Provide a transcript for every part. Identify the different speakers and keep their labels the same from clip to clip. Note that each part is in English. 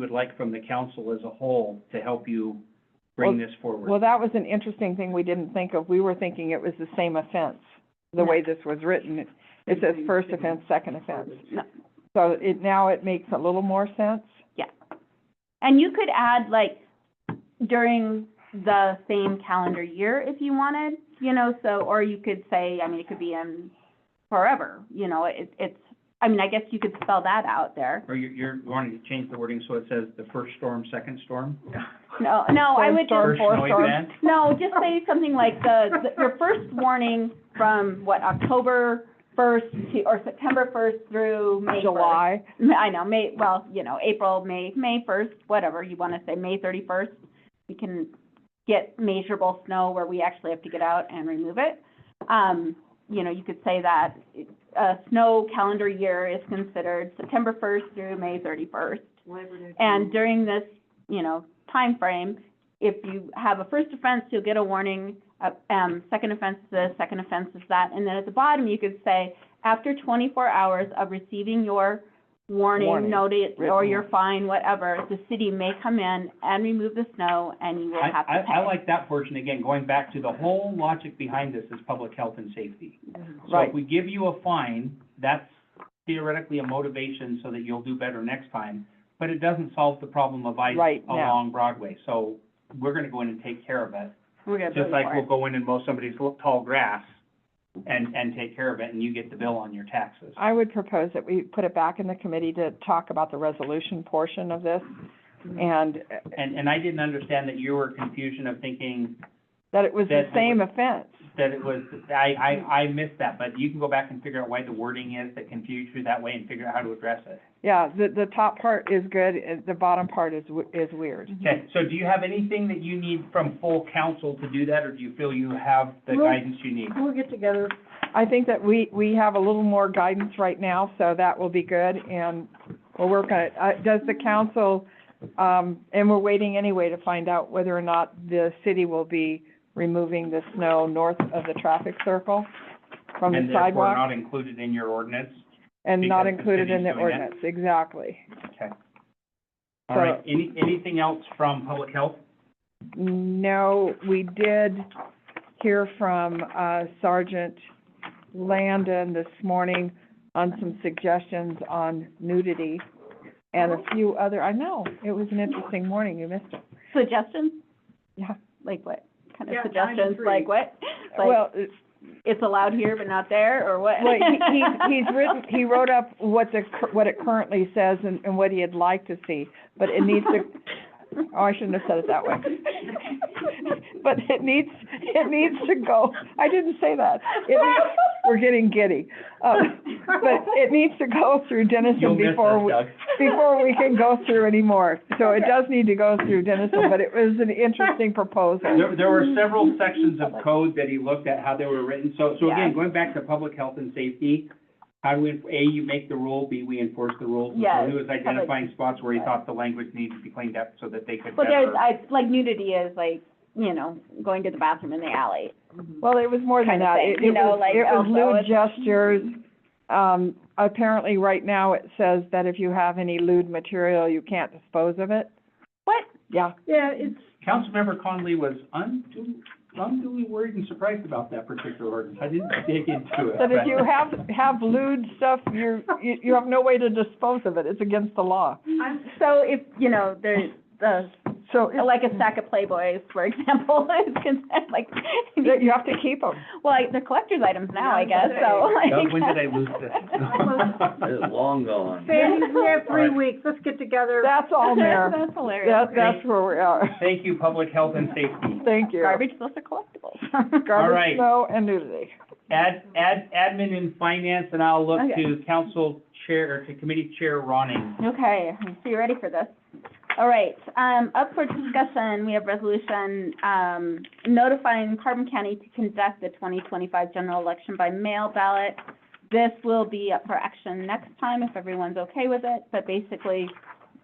Speaker 1: would like from the council as a whole to help you bring this
Speaker 2: Well,
Speaker 1: forward.
Speaker 2: that was an interesting thing we didn't think of. We were thinking it was the same offense, the way this was written. It- It says first offense, second offense.
Speaker 3: No.
Speaker 2: So it, now it makes a little more sense.
Speaker 3: And you could add like during the same calendar year if you wanted, you know, so, or you could say, I mean, it could be in forever, you know, it, it's, I mean, I guess you could spell that out there.
Speaker 1: Or you're, you're wanting to change the wording so it says the first storm, second storm?
Speaker 3: No, no, I would
Speaker 2: Or
Speaker 1: First
Speaker 3: just,
Speaker 2: fourth
Speaker 1: snow
Speaker 2: storm.
Speaker 1: event?
Speaker 3: no, just say something like the, the- your first warning from what, October first to, or September first through May first.
Speaker 2: July,
Speaker 3: Ma- I know, May, well, you know, April, May, May first, whatever you wanna say, May thirty-first, we can get measurable snow where we actually have to get out and remove it. Um, you know, you could say that, uh, snow calendar year is considered September first through May thirty-first. And during this, you know, time frame, if you have a first offense, you'll get a warning, uh, um, second offense is this, second offense is that, and then at the bottom, you could say, after twenty-four hours of receiving your warning,
Speaker 2: Warning,
Speaker 3: notice, or
Speaker 2: written
Speaker 3: your
Speaker 2: warning.
Speaker 3: fine, whatever, the city may come in and remove the snow, and you will
Speaker 1: I,
Speaker 3: have to pay.
Speaker 1: I, I like that portion, again, going back to the whole logic behind this is public health and safety.
Speaker 3: Mm-hmm.
Speaker 1: So if
Speaker 2: Right.
Speaker 1: we give you a fine, that's theoretically a motivation so that you'll do better next time, but it doesn't solve the problem of ice
Speaker 2: Right now.
Speaker 1: along Broadway. So we're gonna go in and take care of it,
Speaker 3: We're gonna bill
Speaker 1: just
Speaker 3: you
Speaker 1: like
Speaker 3: for
Speaker 1: we'll
Speaker 3: it.
Speaker 1: go in and mow somebody's l- tall grass and, and take care of it, and you get the bill on your taxes.
Speaker 2: I would propose that we put it back in the committee to talk about the resolution portion of this and uh,
Speaker 1: And, and I didn't understand that you were confusion of thinking
Speaker 2: that it was the
Speaker 1: That-
Speaker 2: same offense.
Speaker 1: that it was, I, I, I missed that, but you can go back and figure out why the wording is that confused you that way and figure out how to address it.
Speaker 2: Yeah, the, the top part is good, uh, the bottom part is, w- is weird.
Speaker 1: Okay, so do you have anything that you need from full council to do that, or do you feel you have the
Speaker 2: Well-
Speaker 1: guidance you need?
Speaker 2: We'll get together. I think that we, we have a little more guidance right now, so that will be good, and we'll work on it. Uh, does the council, um, and we're waiting anyway to find out whether or not the city will be removing the snow north of the traffic circle from the
Speaker 1: And therefore
Speaker 2: sidewalk
Speaker 1: not included in your ordinance?
Speaker 2: and not
Speaker 1: because the
Speaker 2: included in
Speaker 1: city's
Speaker 2: the
Speaker 1: doing that.
Speaker 2: ordinance, exactly.
Speaker 1: Okay. All right,
Speaker 2: So-
Speaker 1: any, anything else from public health?
Speaker 2: No, we did hear from uh, Sergeant Landon this morning on some suggestions on nudity and a few other, I know, it was an interesting morning, you missed it.
Speaker 3: Suggestions,
Speaker 2: Yeah,
Speaker 3: like what, kind of
Speaker 4: Yeah, nine to
Speaker 3: suggestions,
Speaker 4: three.
Speaker 3: like what? Like,
Speaker 2: well, it's-
Speaker 3: It's allowed here but not there, or what?
Speaker 2: well, he, he- he's written, he wrote up what the, cur- what it currently says and, and what he'd like to see, but it needs to, oh, I shouldn't have said it that way. But it needs, it needs to go, I didn't say that. It needs- we're getting giddy. Um, But it needs to go through
Speaker 1: You'll
Speaker 2: Denison
Speaker 1: miss
Speaker 2: before,
Speaker 1: this,
Speaker 2: we-
Speaker 1: Doug.
Speaker 2: before we can go through anymore. So it does need to go through Denison, but it was an interesting proposal.
Speaker 1: There, there were several sections of code that he looked at, how they were written, so, so again,
Speaker 3: Mm-hmm. Yeah.
Speaker 1: going back to public health and safety, how do we, A, you make the rule, B, we enforce the rules, and so
Speaker 3: Yes,
Speaker 1: he was identifying spots where he thought the language needed to be cleaned up so that they could
Speaker 3: Well, there's, uh,
Speaker 1: better.
Speaker 3: I, like nudity is like, you know, going to the bathroom in the alley.
Speaker 2: Well, it was more than
Speaker 3: Kind of
Speaker 2: that.
Speaker 3: thing,
Speaker 2: It,
Speaker 3: you
Speaker 2: it
Speaker 3: know,
Speaker 2: was,
Speaker 3: like
Speaker 2: it was
Speaker 3: also
Speaker 2: lewd
Speaker 3: it's-
Speaker 2: gestures. Um, apparently, right now, it says that if you have any lewd material, you can't dispose of it.
Speaker 3: What?
Speaker 2: Yeah,
Speaker 4: Yeah, it's,
Speaker 1: Councilmember Conley was unduly, unduly worried and surprised about that particular ordinance, I didn't dig into it.
Speaker 2: that if
Speaker 1: but-
Speaker 2: you have, have lewd stuff, you're, you, you have no way to dispose of it. It's against the law.
Speaker 4: I'm,
Speaker 3: So if, you know, there's, uh,
Speaker 2: So it's-
Speaker 3: like a stack of Playboys, for example, is considered like,
Speaker 2: that you have to keep them.
Speaker 3: well, like, they're collector's items now, I guess, so.
Speaker 1: Doug, when did I lose
Speaker 5: It's
Speaker 1: this?
Speaker 5: long gone.
Speaker 4: Sandy, we have
Speaker 1: All
Speaker 4: three
Speaker 1: right.
Speaker 4: weeks, let's get together.
Speaker 2: That's all, Mayor.
Speaker 3: That's hilarious.
Speaker 2: That, that's where we are.
Speaker 1: Thank you, public health and safety.
Speaker 2: Thank you.
Speaker 3: Garbage, those are collectibles.
Speaker 1: right.
Speaker 2: Garbage, snow, and nudity.
Speaker 1: Ad, ad, admin and finance, and I'll look
Speaker 3: Okay.
Speaker 1: to council chair, or to committee chair Ronning.
Speaker 3: Okay, so you ready for this? All right, um, up for discussion, we have resolution, um, notifying Carbon County to conduct the twenty twenty-five general election by mail ballot. This will be up for action next time if everyone's okay with it, but basically,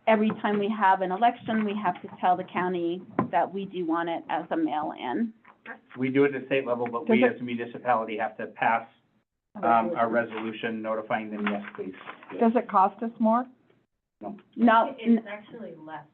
Speaker 3: every time we have an election, we have to tell the county that we do want it as a mail-in.
Speaker 1: We do it at state level, but we
Speaker 2: Does
Speaker 1: as a municipality have to pass, um, a resolution notifying them, yes, please.
Speaker 2: Does it cost us more?
Speaker 6: No.
Speaker 7: No, n-
Speaker 3: It's actually less